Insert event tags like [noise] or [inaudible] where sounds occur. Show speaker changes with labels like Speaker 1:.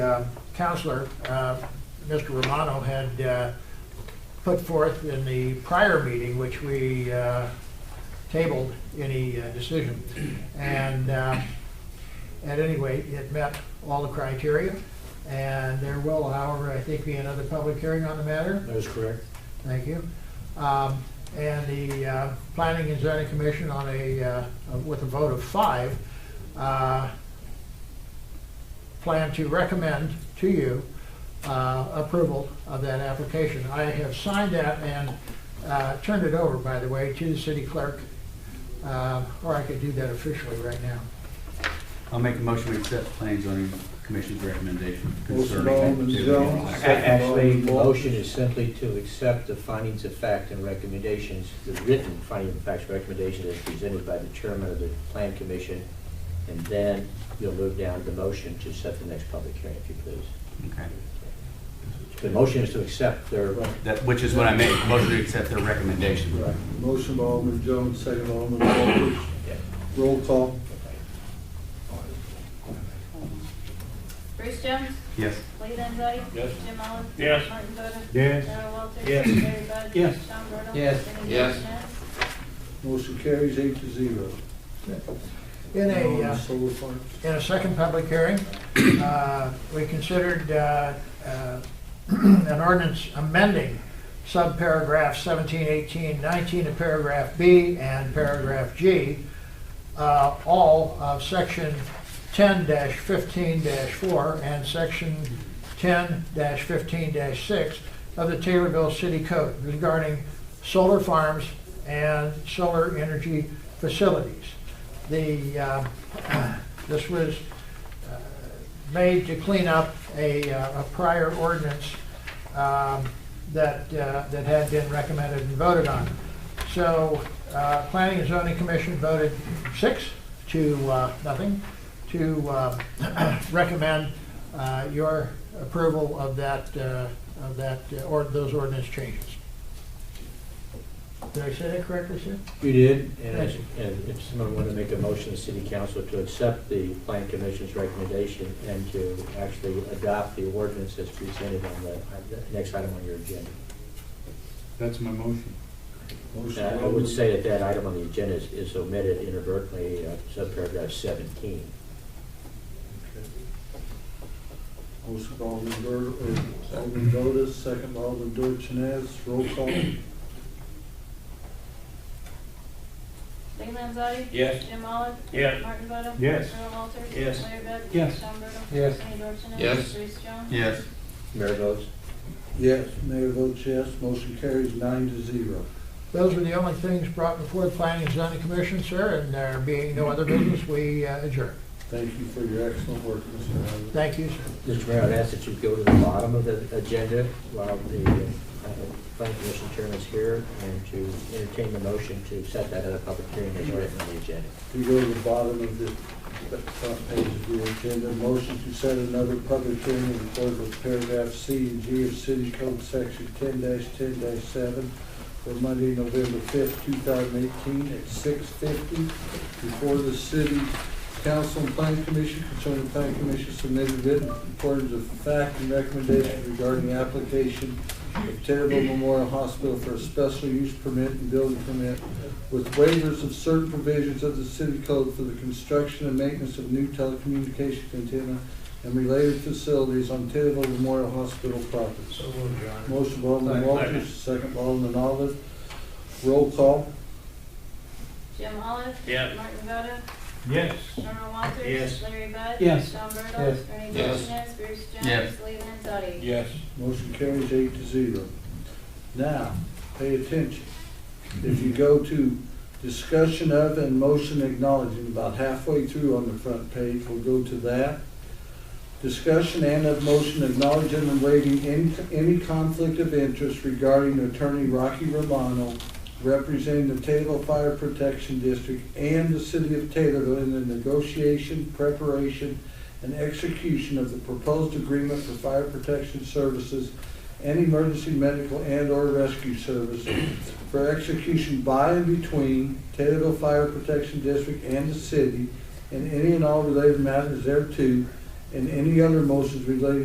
Speaker 1: uh, counselor, uh, Mr. Romano, had uh, put forth in the prior meeting, which we uh, tabled any uh, decision. And uh, at any rate, it met all the criteria, and there will, however, I think, be another public hearing on the matter.
Speaker 2: That is correct.
Speaker 1: Thank you. Um, And the uh, Planning and Zoning Commission on a, uh, with a vote of five, uh, plan to recommend to you uh, approval of that application. I have signed that and uh, turned it over, by the way, to the city clerk, uh, or I could do that officially right now.
Speaker 3: I'll make a motion to accept planning and zoning commission's recommendation
Speaker 4: Motion
Speaker 3: concerning.
Speaker 4: by Alderman
Speaker 3: activity
Speaker 4: Jones,
Speaker 3: block.
Speaker 4: second by
Speaker 2: Actually,
Speaker 4: Alderman
Speaker 2: the
Speaker 4: Moore.
Speaker 2: motion is simply to accept the findings of fact and recommendations, the written findings of facts and recommendations as presented by the chairman of the plan commission, and then you'll move down to the motion to set the next public hearing, if you please.
Speaker 3: Okay.
Speaker 2: The motion is to accept their,
Speaker 3: That, which is what I made, motion to accept their recommendation.
Speaker 4: Right. Motion by Alderman Jones, second by Alderman Walters.
Speaker 2: yeah.
Speaker 4: Roll call.
Speaker 5: Bruce Jones?
Speaker 3: Yes.
Speaker 5: Lee Landzadi?
Speaker 6: Yes.
Speaker 5: Jim Oliver?
Speaker 6: Yes.
Speaker 5: Martin Boda?
Speaker 2: Yes.
Speaker 5: Earl Walters?
Speaker 6: Yes.
Speaker 5: Larry Bud?
Speaker 2: Yes.
Speaker 5: Sean Burdell?
Speaker 2: Yes.
Speaker 5: Benny
Speaker 6: Yes.
Speaker 5: Anderson?
Speaker 4: Motion carries eight to zero.
Speaker 1: In a, uh,
Speaker 4: Solar farms.
Speaker 1: in a second public hearing, uh, we considered uh, uh, [clears throat] an ordinance amending subparagraph 17, 18, 19 of paragraph B and paragraph G, uh, all of section 10-15-4 and section 10-15-6 of the Taylorville City Code regarding solar farms and solar energy facilities. The, uh, [clears throat] this was uh, made to clean up a, uh, a prior ordinance um, that, uh, that had been recommended and voted on. So, uh, Planning and Zoning Commission voted six to uh, nothing to uh, [clears throat] recommend uh, your approval of that, uh, of that, uh, or those ordinance changes. Did I say that correctly, Sue?
Speaker 2: You did, and as- and if someone wanted to make a motion to city council to accept the plan commission's recommendation and to actually adopt the ordinance as presented on the on the next item on your agenda.
Speaker 6: That's my motion.
Speaker 4: Motion
Speaker 2: And
Speaker 4: by
Speaker 2: I would
Speaker 4: Alderman-
Speaker 2: say that that item on the agenda is- is omitted inadvertently, uh, subparagraph 17.
Speaker 4: Motion by Alderman Dur, or Alderman Otis, second by Alderman Dorchenez. Roll call.
Speaker 5: Lee Landzadi?
Speaker 6: Yes.
Speaker 5: Jim Oliver?
Speaker 6: Yes.
Speaker 5: Larry Bud?
Speaker 6: Yes.
Speaker 5: Earl Walters?
Speaker 6: Yes.
Speaker 5: Larry Bud?
Speaker 6: Yes.
Speaker 5: Sean Burdell?
Speaker 6: Yes.
Speaker 5: Benny Anderson?
Speaker 6: Yes.
Speaker 5: Bruce Jones?
Speaker 3: Yes.
Speaker 2: Mayor votes?
Speaker 4: Yes, mayor votes yes, motion carries nine to zero.
Speaker 1: Those were the only things brought before the Planning and Zoning Commission, sir, and there being no other business, we uh, adjourn.
Speaker 4: Thank you for your excellent work, Mr. Howard.
Speaker 1: Thank you, sir.
Speaker 2: Mr. Mayor, I'd ask that you go to the bottom of the agenda while the uh, plan commission chairman is here and to entertain the motion to set that at a public hearing as written on the agenda.
Speaker 4: If you go to the bottom of the the front page of the agenda, motion to set another public hearing in accordance with paragraph C and G of City Code Section ten ten seven for Monday, November fifth, two thousand eighteen, at six fifty before the city council and plan commission concerning plan commission submitted written accordance of fact and recommendation regarding application of Taylorville Memorial Hospital for a special use permit and building permit with waivers of certain provisions of the city code for the construction and maintenance of new telecommunications antenna and related facilities on Taylorville Memorial Hospital property. Motion by Alderman Walters, second by Alderman Olive. Roll call.
Speaker 5: Jim Oliver?
Speaker 6: Yes.
Speaker 5: Martin Boda?
Speaker 6: Yes.
Speaker 5: Earl Walters?
Speaker 6: Yes.
Speaker 5: Larry Bud?
Speaker 6: Yes.
Speaker 5: Sean Burdell?
Speaker 4: Yes.
Speaker 5: Benny
Speaker 6: Yes.
Speaker 5: Anderson? Bruce Jones?
Speaker 3: Yes.
Speaker 5: Lee Landzadi?
Speaker 6: Yes.
Speaker 4: Motion carries eight to zero. Now, pay attention. If you go to discussion of and motion acknowledging, about halfway through on the front page, we'll go to that. Discussion and of motion acknowledging and waiving any, any conflict of interest regarding Attorney Rocky Romano representing the Taylorville Fire Protection District and the City of Taylorville in the negotiation, preparation, and execution of the proposed agreement for fire protection services and emergency medical and/or rescue service for execution by and between Taylorville Fire Protection District and the city and any and all related matters thereto, and any other motions relating